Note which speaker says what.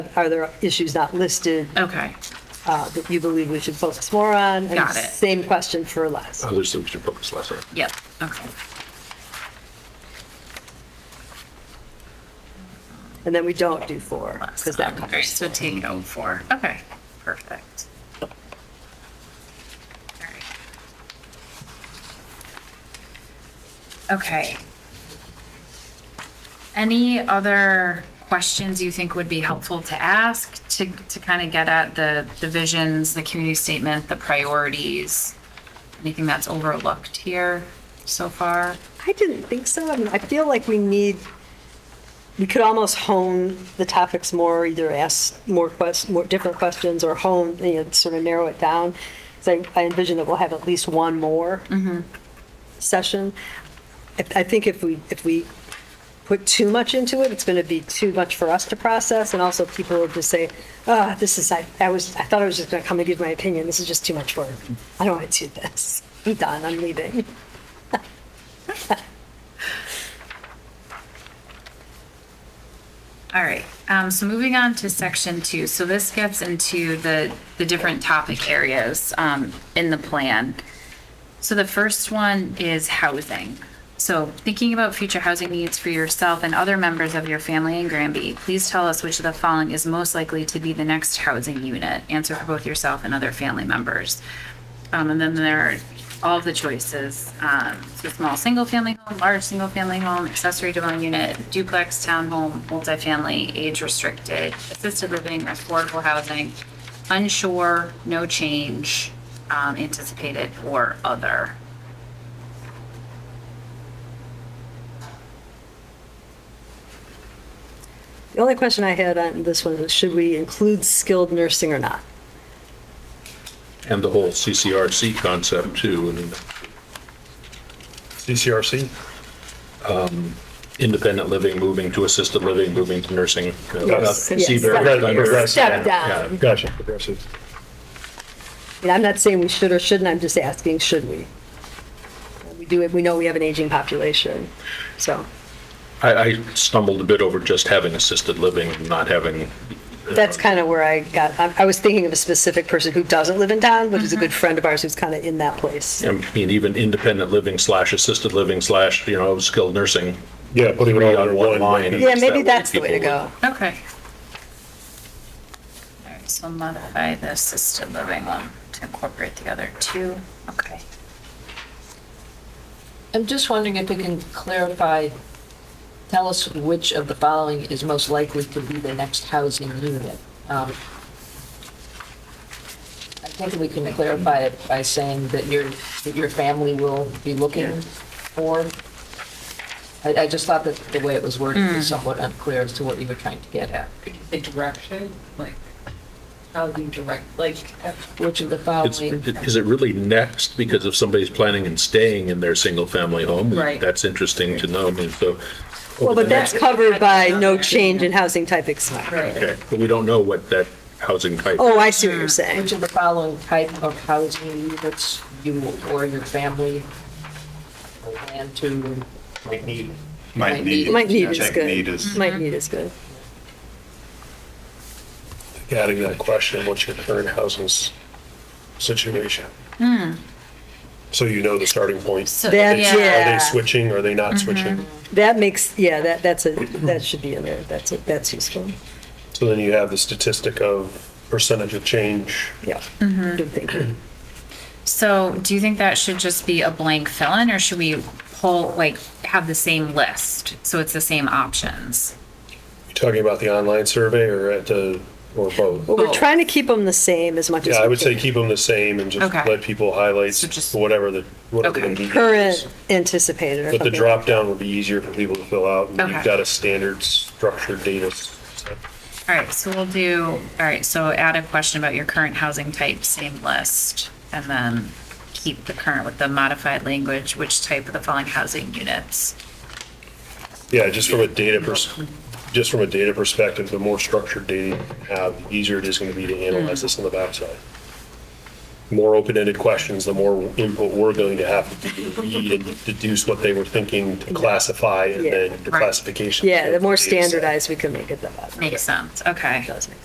Speaker 1: Are there issues not listed
Speaker 2: Okay.
Speaker 1: uh, that you believe we should focus more on? And
Speaker 2: Got it.
Speaker 1: Same question for Les.
Speaker 3: Others that we should focus less on.
Speaker 2: Yep. Okay.
Speaker 1: And then we don't do four, because that
Speaker 2: All right,
Speaker 1: covers.
Speaker 2: so take out four. Okay, perfect. All right. Okay. Any other questions you think would be helpful to ask to, to kind of get at the, the visions, the community statement, the priorities? Anything that's overlooked here so far?
Speaker 1: I didn't think so. I mean, I feel like we need, we could almost hone the topics more, either ask more quest, more different questions or hone, you know, sort of narrow it down. So I I envision that we'll have at least one more session. I, I think if we, if we put too much into it, it's going to be too much for us to process. And also people will just say, ah, this is, I, I was, I thought I was just going to come and give my opinion. This is just too much work. I don't want to do this. I'm done. I'm leaving.
Speaker 2: All right, um, so moving on to section two, so this gets into the, the different topic areas, um, in the plan. So the first one is housing. So thinking about future housing needs for yourself and other members of your family in Granby, please tell us which of the following is most likely to be the next housing unit. Answer for both yourself and other family members. Um, and then there are all of the choices, um, so small single-family home, large single-family home, accessory dwelling unit, duplex, townhome, multifamily, age-restricted, assisted living, affordable housing, unsure, no change, um, anticipated, or other.
Speaker 1: The only question I had on this one was, should we include skilled nursing or not?
Speaker 3: And the whole CCRC concept too, and
Speaker 4: CCRC?
Speaker 3: um, independent living, moving to assisted living, moving to nursing. uh,
Speaker 4: Yes.
Speaker 3: uh,
Speaker 1: Yes.
Speaker 3: CBER,
Speaker 4: Right,
Speaker 3: under-
Speaker 4: right.
Speaker 1: Step down.
Speaker 3: Yeah.
Speaker 4: Gotcha. Progressive.
Speaker 1: I mean, I'm not saying we should or shouldn't, I'm just asking, should we? We do it, we know we have an aging population, so
Speaker 3: I, I stumbled a bit over just having assisted living and not having.
Speaker 1: that's kind of where I got, I I was thinking of a specific person who doesn't live in town, but is a good friend of ours who's kind of in that place.
Speaker 3: I mean, even independent living slash assisted living slash, you know, skilled nursing.
Speaker 4: Yeah, putting it all under one
Speaker 3: line.
Speaker 4: line.
Speaker 1: Yeah, maybe
Speaker 3: way
Speaker 1: that's the way to
Speaker 3: people
Speaker 1: go.
Speaker 2: Okay. All right, so modify the assisted living one to incorporate the other two, okay.
Speaker 5: I'm just wondering if we can clarify, tell us which of the following is most likely to be the next housing unit. Um, I think we can clarify it by saying that your, that your family will be looking for. I, I just thought that the way it was worded was somewhat unclear as to what you were trying to get at.
Speaker 6: the direction, like, how do you direct, like,
Speaker 5: Which of the
Speaker 3: It's,
Speaker 5: following,
Speaker 3: it- is it really next because if somebody's planning and staying in their single-family home?
Speaker 6: Right.
Speaker 3: That's interesting to know, I mean, so.
Speaker 1: Well, but that's covered by no change in housing type
Speaker 6: Right.
Speaker 1: except.
Speaker 3: Okay, But we don't know what that housing type.
Speaker 1: Oh, I see what you're saying.
Speaker 5: which of the following type of housing units you or your family plan to
Speaker 4: Might need.
Speaker 5: Might Mm-hmm. need.
Speaker 1: Might need is
Speaker 7: Check need
Speaker 1: good.
Speaker 7: is-
Speaker 1: Might need is good.
Speaker 4: Adding that question, what's your current housing s- situation?
Speaker 2: Hmm.
Speaker 4: So you know the starting point.
Speaker 2: So,
Speaker 1: That's
Speaker 2: yeah. Mm-hmm.
Speaker 1: it.
Speaker 4: Are
Speaker 1: Yeah.
Speaker 4: they switching, are they not switching?
Speaker 1: That makes, yeah, that, that's a, that should be in there, that's, a- that's useful,
Speaker 4: So then you have the statistic of percentage of change.
Speaker 1: yeah. Good thinking.
Speaker 2: So do you think that should just be a blank fill-in or should we pull, like, have the same list? So it's the same options?
Speaker 4: You talking about the online survey or at the, or both?
Speaker 1: Well, we're
Speaker 2: Both.
Speaker 1: trying to keep them the same as much as we
Speaker 4: Yeah,
Speaker 1: can.
Speaker 4: I would say keep them the same and just
Speaker 2: Okay.
Speaker 4: let people highlight
Speaker 2: So just-
Speaker 4: whatever the, whatever the
Speaker 2: Okay.
Speaker 4: need is.
Speaker 1: Current anticipated or
Speaker 4: But the
Speaker 1: something.
Speaker 4: drop down would be easier for people to fill out. and
Speaker 2: Okay.
Speaker 4: You've got a standard structured data set.
Speaker 2: All right, so we'll do, all right, so add a question about your current housing type, same list, and then keep the current with the modified language, which type of the following housing units.
Speaker 4: Yeah, just from a data pers, just from a data perspective, the more structured data you have, the easier it is going to be to analyze this on the backside. more open-ended questions, the more input we're going to have to read and deduce what they were thinking to classify and then the
Speaker 2: Right.
Speaker 4: classification.
Speaker 1: Yeah, the more
Speaker 4: of data set.
Speaker 1: standardized we can make it, the better.
Speaker 2: Makes sense, okay.
Speaker 1: It does make